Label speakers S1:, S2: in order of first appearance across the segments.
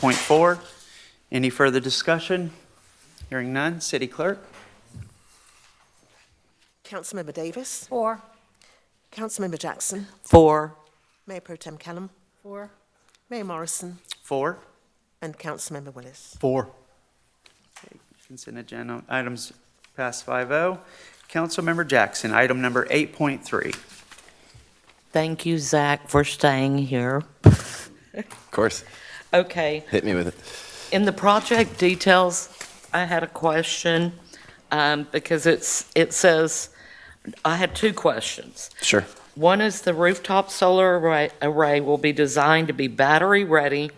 S1: 8.4, any further discussion? Hearing none, city clerk?
S2: Councilmember Davis,
S3: Four.
S2: Councilmember Jackson,
S4: Four.
S2: Mayor Pro Tem Callum,
S3: Four.
S2: Mayor Morrison,
S1: Four?
S2: and Councilmember Willis.
S1: Four. Consent agenda items passed 5-0. Councilmember Jackson, item number 8.3.
S4: Thank you, Zach, for staying here.
S5: Of course.
S4: Okay,
S5: Hit me with it.
S4: in the project details, I had a question, um, because it's, it says, I had two questions.
S5: Sure.
S4: One is the rooftop solar array- array will be designed to be battery-ready,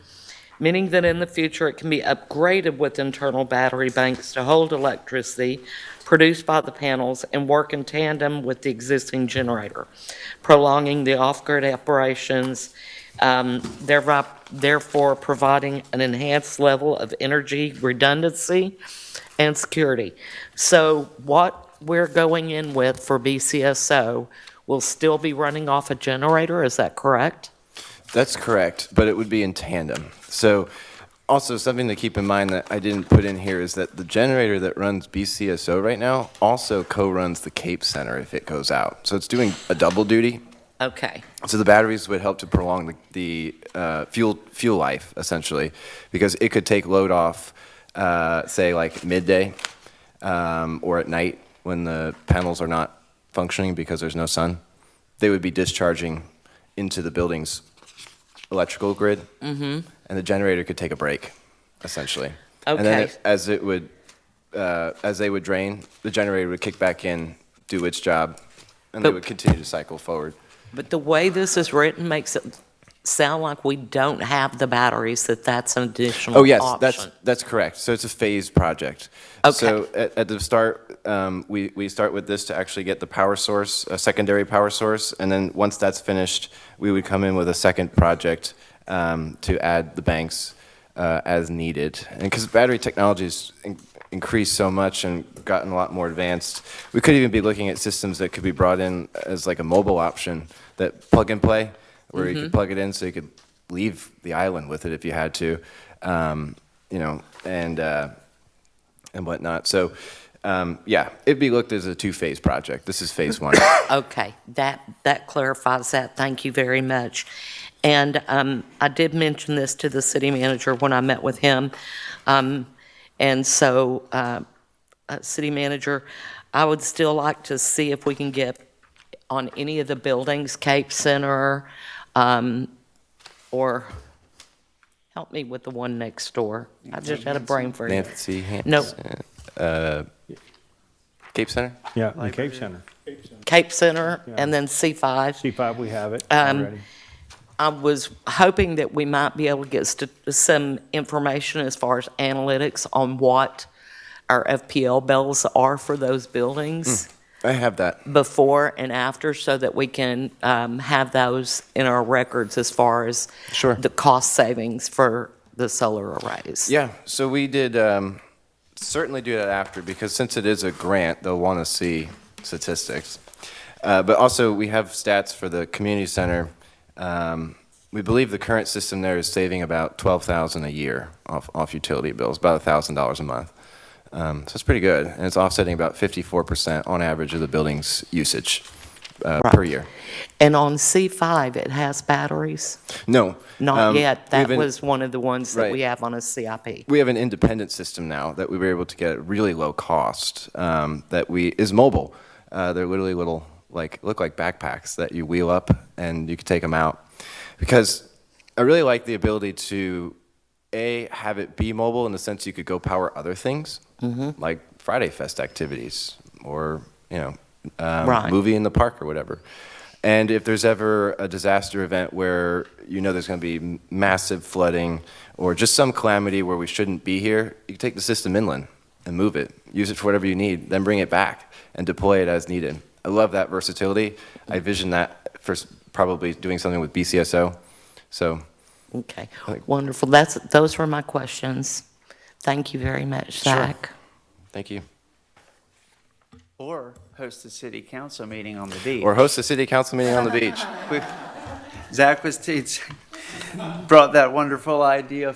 S4: meaning that in the future, it can be upgraded with internal battery banks to hold electricity produced by the panels and work in tandem with the existing generator, prolonging the off-grid operations, um, thereby- therefore providing an enhanced level of energy redundancy and security. So what we're going in with for BCSO will still be running off a generator, is that correct?
S5: That's correct, but it would be in tandem. So, also something to keep in mind that I didn't put in here is that the generator that runs BCSO right now also co-runs the Cape Center if it goes out. So it's doing a double duty.
S4: Okay,
S5: So the batteries would help to prolong the, the uh, fuel fuel life essentially, because it could take load off, uh, say like midday, um, or at night when the panels are not functioning because there's no sun. They would be discharging into the building's electrical grid, mm-hmm. and the generator could take a break, essentially. And then
S4: Okay.
S5: it- as it would, uh, as they would drain, the generator would kick back in, do its job, and they
S4: But-
S5: would continue to cycle forward.
S4: but the way this is written makes it sound like we don't have the batteries, that that's an additional
S5: Oh, yes, that's,
S4: option.
S5: that's correct. So it's a phased project.
S4: Okay.
S5: So at, at the start, um, we, we start with this to actually get the power source, a secondary power source, and then once that's finished, we would come in with a second project um, to add the banks uh, as needed. And because battery technology's in- increased so much and gotten a lot more advanced, we could even be looking at systems that could be brought in as like a mobile option that plug and play, where you could plug it in so you could leave the island with it if you had to, um, you know, and uh, and whatnot. So, um, yeah, it'd be looked as a two-phase project. This is phase one.
S4: Okay, that, that clarifies that, thank you very much. And um, I did mention this to the city manager when I met with him. Um, And so, uh, uh, city manager, I would still like to see if we can get on any of the buildings, Cape Center, um, or, help me with the one next door. I just had a brain freeze.
S5: Nancy Hanson.
S4: No,
S5: Cape Center.
S6: Yeah, the Cape Center.
S4: Cape Center, and then C5.
S6: C5, we have it
S4: Um,
S6: already.
S4: I was hoping that we might be able to get st- some information as far as analytics on what our FPL bills are for those buildings
S5: I have that.
S4: before and after, so that we can um, have those in our records as far as
S5: Sure.
S4: the cost savings for the solar arrays.
S5: Yeah, so we did um, certainly do that after because since it is a grant, they'll want to see statistics. Uh, but also, we have stats for the community center. Um, we believe the current system there is saving about twelve thousand a year off, off utility bills, about thousand dollars a month. Um, so it's pretty good, and it's offsetting about fifty-four percent on average of the building's usage uh, per year.
S4: And on C5, it has batteries?
S5: No,
S4: Not
S5: um,
S4: yet.
S5: we've
S4: That
S5: been-
S4: was one of the ones that
S5: Right.
S4: we have on a CIP.
S5: we have an independent system now that we were able to get at really low cost um, that we is mobile. Uh, they're literally little like look like backpacks that you wheel up and you can take them out because I really like the ability to a have it be mobile in the sense you could go power other things like Friday Fest activities or you know um,
S4: Right.
S5: movie in the park or whatever. And if there's ever a disaster event where you know there's going to be m- massive flooding or just some calamity where we shouldn't be here, you can take the system inland and move it, use it for whatever you need, then bring it back and deploy it as needed. I love that versatility. I vision that for s- probably doing something with BCSO. So
S4: Okay,
S5: Like-
S4: wonderful. That's, those were my questions. Thank you very much,
S5: Sure.
S4: Zach.
S5: thank you.
S1: Or host a city council meeting on the beach.
S5: Or host a city council meeting on the beach.
S1: Zach was, t- brought that wonderful idea